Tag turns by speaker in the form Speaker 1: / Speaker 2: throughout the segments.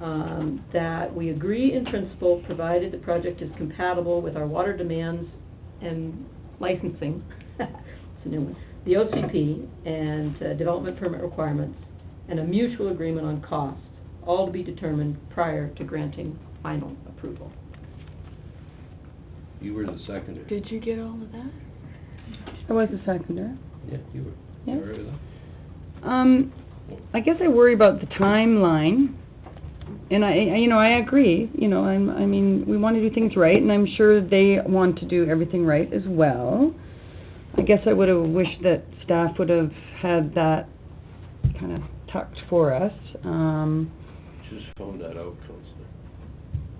Speaker 1: um, that we agree in principle, provided the project is compatible with our water demands and licensing, it's a new one, the OCP and uh, development permit requirements, and a mutual agreement on cost, all to be determined prior to granting final approval.
Speaker 2: You were the seconder.
Speaker 3: Did you get all of that?
Speaker 4: I was a seconder.
Speaker 2: Yeah, you were.
Speaker 4: Yeah.
Speaker 2: You were with us.
Speaker 4: Um, I guess I worry about the timeline. And I, I- you know, I agree, you know, I'm, I mean, we want to do things right, and I'm sure they want to do everything right as well. I guess I would have wished that staff would have had that kind of tucked for us. Um,
Speaker 2: Just found that out, Counselor.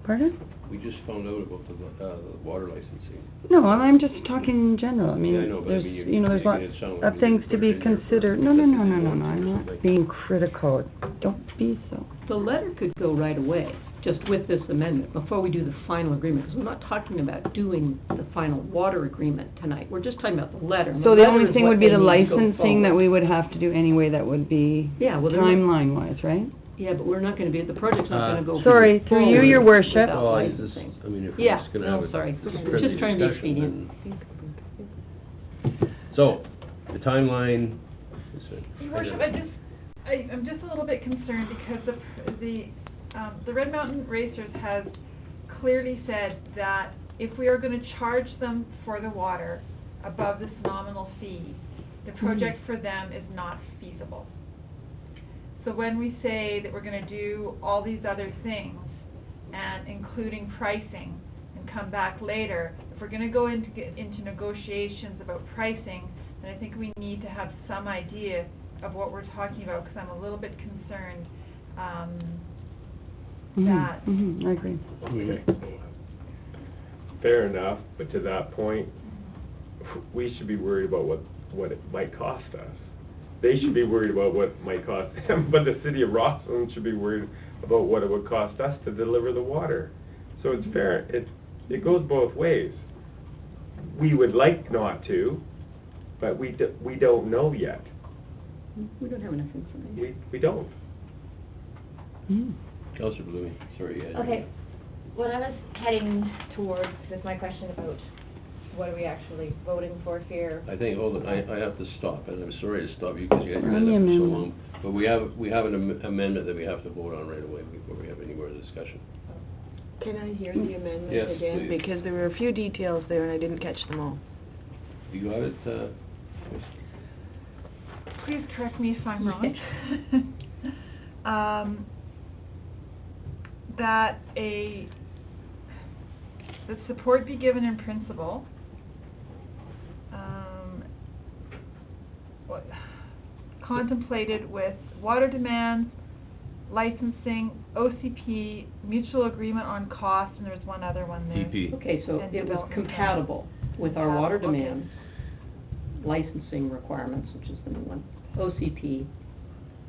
Speaker 4: pardon?
Speaker 2: We just found out about the, uh, the water licensing.
Speaker 4: No, I'm, I'm just talking in general, I mean,
Speaker 2: Yeah, I know, but I
Speaker 4: there's,
Speaker 2: mean, you-
Speaker 4: you know, there's
Speaker 2: you
Speaker 4: lots
Speaker 2: made it sound like
Speaker 4: of
Speaker 2: you
Speaker 4: things
Speaker 2: put
Speaker 4: to
Speaker 2: it
Speaker 4: be
Speaker 2: in there for
Speaker 4: considered. No, no, no, no, no, no, I'm
Speaker 2: 51 or
Speaker 4: not
Speaker 2: something.
Speaker 4: being critical, don't be so.
Speaker 1: The letter could go right away, just with this amendment, before we do the final agreement, because we're not talking about doing the final water agreement tonight. We're just talking about the letter. and
Speaker 4: So the
Speaker 1: letter
Speaker 4: only
Speaker 1: is
Speaker 4: thing
Speaker 1: what
Speaker 4: would be
Speaker 1: they
Speaker 4: the
Speaker 1: need to go
Speaker 4: licensing that
Speaker 1: forward.
Speaker 4: we would have to do anyway, that would be
Speaker 1: Yeah, well, they're not-
Speaker 4: timeline wise, right?
Speaker 1: Yeah, but we're not gonna be, the project's not gonna go.
Speaker 4: Uh, Sorry, through you, your
Speaker 1: forward
Speaker 4: worship.
Speaker 1: without
Speaker 2: Well, I just,
Speaker 1: licensing.
Speaker 2: I mean, if we're
Speaker 1: Yeah,
Speaker 2: just gonna
Speaker 1: no,
Speaker 2: have a.
Speaker 1: sorry.
Speaker 2: this
Speaker 1: Just
Speaker 2: friendly
Speaker 1: trying to be
Speaker 2: discussion,
Speaker 1: expedient.
Speaker 2: then- So, the timeline. is it-
Speaker 5: Your worship, I just, I, I'm just a little bit concerned because the, the, um, the Red Mountain Racers has clearly said that if we are gonna charge them for the water above this nominal fee, the project for them is not feasible. So when we say that we're gonna do all these other things, and including pricing, and come back later, if we're gonna go into, get into negotiations about pricing, then I think we need to have some idea of what we're talking about, because I'm a little bit concerned, um,
Speaker 4: Mhm,
Speaker 5: that
Speaker 4: mhm, I agree.
Speaker 2: Oh,
Speaker 6: Okay. Fair enough, but to that point, we should be worried about what, what it might cost us. They should be worried about what it might cost them, but the city of Rosslyn should be worried about what it would cost us to deliver the water. So it's fair, it, it goes both ways. We would like not to, but we, d- we don't know yet.
Speaker 1: We don't have enough information.
Speaker 6: We, we don't.
Speaker 4: Mm.
Speaker 2: Counselor Blooming, sorry, yeah.
Speaker 7: Okay, what I was heading towards is my question about what are we actually voting for here?
Speaker 2: I think, hold on, I, I have to stop, and I'm sorry to stop you because you had your
Speaker 4: Run
Speaker 2: hand
Speaker 4: the
Speaker 2: up for so
Speaker 4: amendment.
Speaker 2: long. But we have, we have an am- amendment that we have to vote on right away before we have any more discussion.
Speaker 3: Can I hear the
Speaker 2: Yes,
Speaker 3: amendment again?
Speaker 2: please.
Speaker 3: Because there were a few details there and I didn't catch them all.
Speaker 2: Do you have it, uh? Chris?
Speaker 5: Please correct me if I'm wrong. Um, that a, that support be given in principle. Um, what, contemplated with water demands, licensing, OCP, mutual agreement on cost, and there's one other one there.
Speaker 2: DP.
Speaker 1: Okay, so
Speaker 5: And
Speaker 1: it was
Speaker 5: development plan.
Speaker 1: compatible with our water
Speaker 5: Compatible, okay.
Speaker 1: demands, licensing requirements, which is the new one, OCP,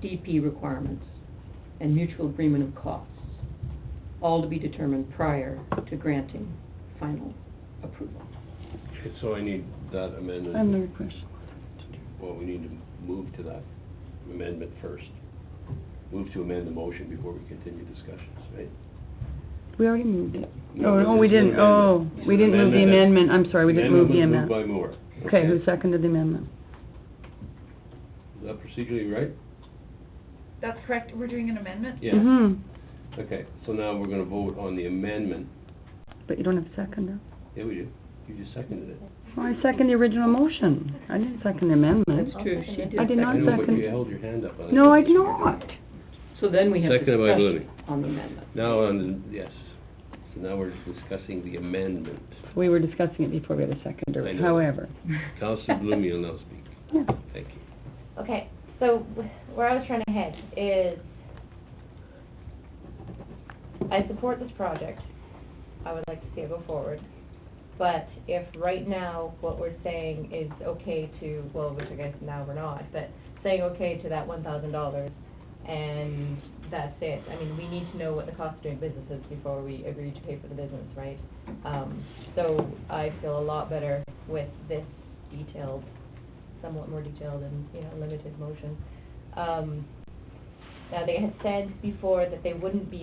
Speaker 1: DP requirements, and mutual agreement of costs, all to be determined prior to granting final approval.
Speaker 2: Okay, So I need that amendment.
Speaker 4: I have another question.
Speaker 2: Well, we need to move to that amendment first. Move to amend the motion before we continue discussions, right?
Speaker 4: We already moved it.
Speaker 2: No,
Speaker 4: Oh,
Speaker 2: but
Speaker 4: oh, we
Speaker 2: it's an
Speaker 4: didn't, oh,
Speaker 2: amendment.
Speaker 4: we didn't move the
Speaker 2: It's an amendment
Speaker 4: amendment, I'm sorry, we didn't move the
Speaker 2: Amendment was
Speaker 4: amendment.
Speaker 2: moved by Moore.
Speaker 4: Okay, who seconded the amendment?
Speaker 2: Is that procedurally right?
Speaker 5: That's correct, we're doing an amendment?
Speaker 2: Yeah.
Speaker 4: Mhm.
Speaker 2: Okay, so now we're gonna vote on the amendment.
Speaker 4: But you don't have a seconder.
Speaker 2: Yeah, we do. You just seconded it.
Speaker 4: Well, I second the original motion. I didn't second the amendment.
Speaker 1: That's true, she did.
Speaker 4: I did not
Speaker 2: I
Speaker 1: second.
Speaker 2: know, but
Speaker 4: second.
Speaker 2: you held your hand up. and
Speaker 4: No, I
Speaker 2: think
Speaker 4: do
Speaker 2: that's what you're
Speaker 4: not.
Speaker 2: doing.
Speaker 1: So then we have
Speaker 2: Seconded by
Speaker 1: discussion
Speaker 2: Blooming.
Speaker 1: on the amendment.
Speaker 2: Now, on, the- yes. So now we're discussing the amendment.
Speaker 4: We were discussing it before we had a seconder,
Speaker 2: I know.
Speaker 4: however.
Speaker 2: Counselor Bloom, you'll now speak.
Speaker 4: Yeah.
Speaker 2: Thank you.
Speaker 7: Okay, so wh- where I was trying to head is, I support this project, I would like to see it go forward, but if right now what we're saying is okay to, well, which I guess now we're not, but saying okay to that one thousand dollars and that's it, I mean, we need to know what the cost of doing business is before we agree to pay for the business, right? Um, so I feel a lot better with this detailed somewhat more detailed and, you know, limited motion. Um, now, they had said before that they wouldn't be